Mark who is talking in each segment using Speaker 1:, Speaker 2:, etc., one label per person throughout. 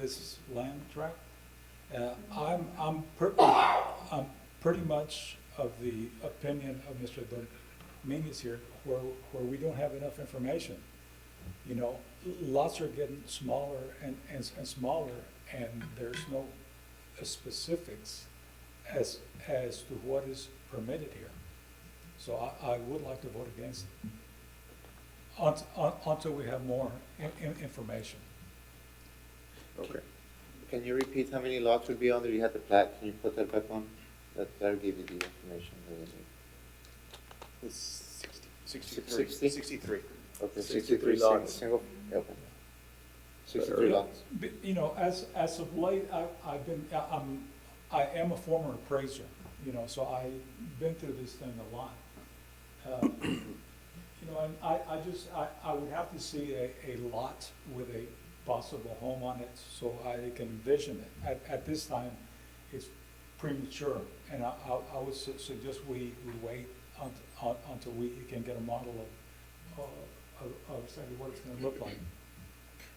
Speaker 1: this is land tract. Uh, I'm, I'm per, I'm pretty much of the opinion of Mr. Dominguez here, where, where we don't have enough information. You know, lots are getting smaller and, and, and smaller, and there's no specifics as, as to what is permitted here. So I, I would like to vote against it. Unt- un- Until we have more in- in- information.
Speaker 2: Okay. Can you repeat how many lots would be on there? You had the plat, can you put that back on? That, that'll give you the information that we need.
Speaker 3: It's sixty- Sixty-three.
Speaker 2: Sixty?
Speaker 3: Sixty-three.
Speaker 2: Okay,
Speaker 3: 63
Speaker 2: sixty-three sing-
Speaker 3: lots.
Speaker 2: Single, okay. Sixty-three
Speaker 1: Yeah,
Speaker 2: lots.
Speaker 1: but, You know, as, as of late, I, I've been, I- I'm, I am a former appraiser, you know, so I've been through this thing a lot. Uh, You know, and I, I just, I, I would have to see a, a lot with a possible home on it so I can envision it. At, at this time, it's premature, and I, I- I would su- suggest we, we wait unt- un- until we can get a model of, of, of exactly what it's gonna look like.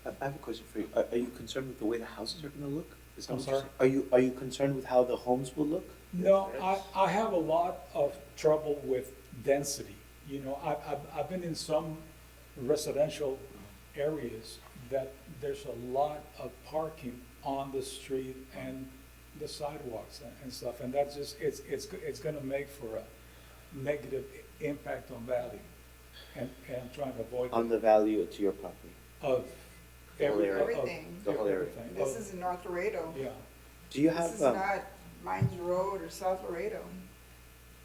Speaker 4: I I have a question for you. Are, are you concerned with the way the houses are gonna look? Is that
Speaker 1: I'm
Speaker 4: what you're
Speaker 1: sorry?
Speaker 4: saying? Are you, are you concerned with how the homes will look?
Speaker 1: No, I, I have a lot of trouble with density. You know, I, I've, I've been in some residential areas that there's a lot of parking on the street and the sidewalks and- and stuff, and that's just, it's, it's, go- it's gonna make for a negative i- impact on value. And, and I'm trying to avoid
Speaker 4: On the value to your property?
Speaker 1: of
Speaker 4: The whole
Speaker 1: every,
Speaker 4: area.
Speaker 1: of- of
Speaker 5: Everything.
Speaker 4: The whole area.
Speaker 1: everything,
Speaker 5: This
Speaker 1: of-
Speaker 5: is in North Laredo.
Speaker 1: Yeah,
Speaker 4: Do you
Speaker 5: This
Speaker 4: have,
Speaker 5: is
Speaker 4: um,
Speaker 5: not Mines Road or South Laredo.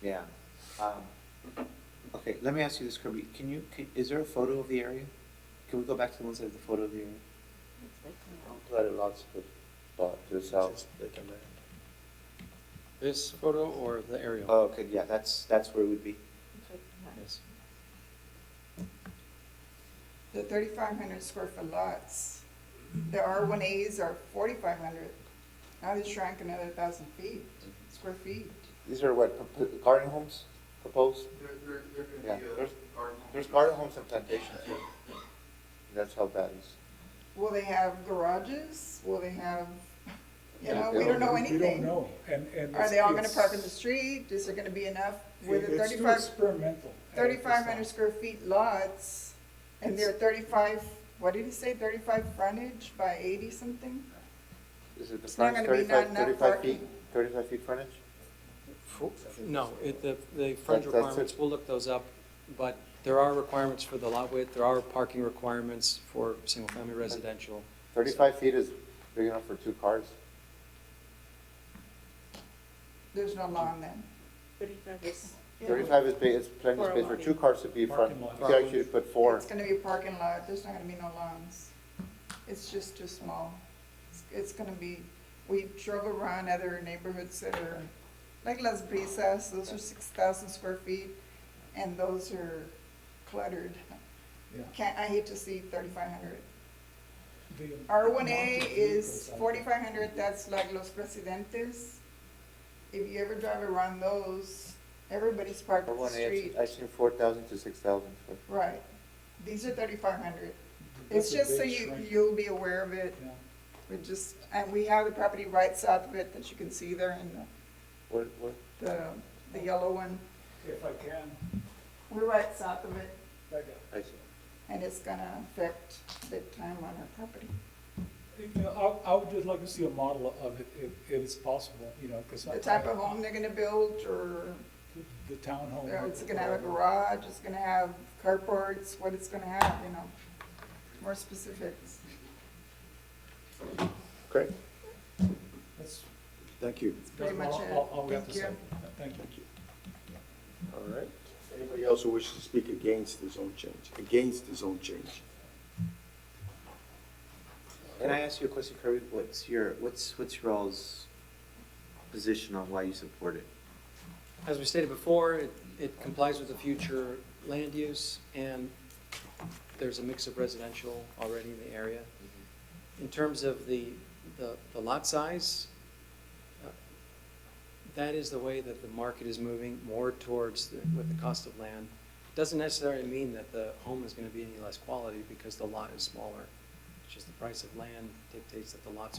Speaker 4: yeah. Um, okay, let me ask you this, Kirby. Can you, can, is there a photo of the area? Can we go back to the ones that have the photo of the area?
Speaker 2: Lot of lots to, lot to the south.
Speaker 6: This photo or the
Speaker 2: Uh,
Speaker 6: aerial?
Speaker 4: Oh, okay, yeah, that's, that's where it would be.
Speaker 6: Yes.
Speaker 5: The thirty-five hundred square foot lots, the R one As are forty-five hundred. Now they shrank another thousand feet, square feet.
Speaker 2: These are what, pro- pro- garden homes proposed?
Speaker 7: There, there, there could be
Speaker 2: Yeah,
Speaker 7: a
Speaker 2: there's-
Speaker 7: garden home.
Speaker 2: There's garden homes and plantations here. That's how bad it is.
Speaker 5: Will they have garages? Will they have, you
Speaker 2: Yeah,
Speaker 5: know,
Speaker 2: they
Speaker 5: we don't know
Speaker 1: we don't
Speaker 5: anything.
Speaker 1: know, and, and.
Speaker 5: Are they all gonna
Speaker 1: it's-
Speaker 5: park in the street? Is there gonna be enough with the
Speaker 1: It's too
Speaker 5: thirty-five?
Speaker 1: experimental. at this
Speaker 5: thirty-five
Speaker 1: time.
Speaker 5: hundred square feet lots, and they're thirty-five, what did he say, thirty-five frontage by eighty something?
Speaker 2: Is it the
Speaker 5: It's not
Speaker 2: frontage,
Speaker 5: gonna be not
Speaker 2: thirty-five,
Speaker 5: enough
Speaker 2: thirty-five feet,
Speaker 5: parking.
Speaker 2: thirty-five feet frontage?
Speaker 6: No, it, the, the frontage
Speaker 2: That- that's it.
Speaker 6: requirements, we'll look those up, but there are requirements for the lot width, there are parking requirements for single-family residential.
Speaker 2: Thirty-five feet is big enough for two cars.
Speaker 5: There's no law on them.
Speaker 2: Thirty-five is, ba- is plenty of space for two cars to be in front.
Speaker 1: Parking
Speaker 2: You
Speaker 1: lot.
Speaker 2: could actually put four.
Speaker 5: It's gonna be a parking lot, there's not gonna be no lawns. It's just too small. It's- It's gonna be, we drove around other neighborhoods that are, like Las Brisas, those are six thousand square feet, and those are cluttered.
Speaker 1: Yeah.
Speaker 5: Can't, I hate to see thirty-five hundred.
Speaker 1: The
Speaker 5: R one
Speaker 1: amount
Speaker 5: A
Speaker 1: of vehicles
Speaker 5: is
Speaker 1: out there.
Speaker 5: forty-five hundred, that's like Los Presidentes. If you ever drive around those, everybody's parked
Speaker 2: For
Speaker 5: on the
Speaker 2: one,
Speaker 5: street.
Speaker 2: I seen four thousand to six thousand foot.
Speaker 5: Right, these are thirty-five hundred.
Speaker 1: That's
Speaker 5: It's
Speaker 1: a
Speaker 5: just so
Speaker 1: big
Speaker 5: you,
Speaker 1: shrink.
Speaker 5: you'll be aware of it,
Speaker 1: Yeah.
Speaker 5: we just, and we have the property right south of it that you can see there in
Speaker 2: What, what?
Speaker 5: the, the, the yellow one.
Speaker 1: If I can,
Speaker 5: We're right south of it,
Speaker 1: back up.
Speaker 2: I see.
Speaker 5: and it's gonna affect the time on our property.
Speaker 1: You know, I, I would just like to see a model of it, if, if it's possible, you know, because.
Speaker 5: The type of home they're gonna build, or
Speaker 1: The townhome.
Speaker 5: Yeah, It's gonna have a garage, it's gonna have carports, what it's gonna have, you know, more specifics.
Speaker 4: Great.
Speaker 1: That's,
Speaker 4: Thank you.
Speaker 5: It's pretty
Speaker 1: that's
Speaker 5: much
Speaker 1: all,
Speaker 5: it.
Speaker 1: all- all we have to
Speaker 5: Thank you.
Speaker 1: say. Thank you.
Speaker 8: All right. Anybody else who wishes to speak against the zone change, against the zone change?
Speaker 4: Can I ask you a question, Kirby? What's your, what's, what's your all's position on why you support it?
Speaker 6: As we stated before, it, it complies with the future land use, and there's a mix of residential already in the area. In terms of the, the, the lot size, uh, that is the way that the market is moving more towards, the- with the cost of land. Doesn't necessarily mean that the home is gonna be any less quality because the lot is smaller. just the price of land dictates that the lots are.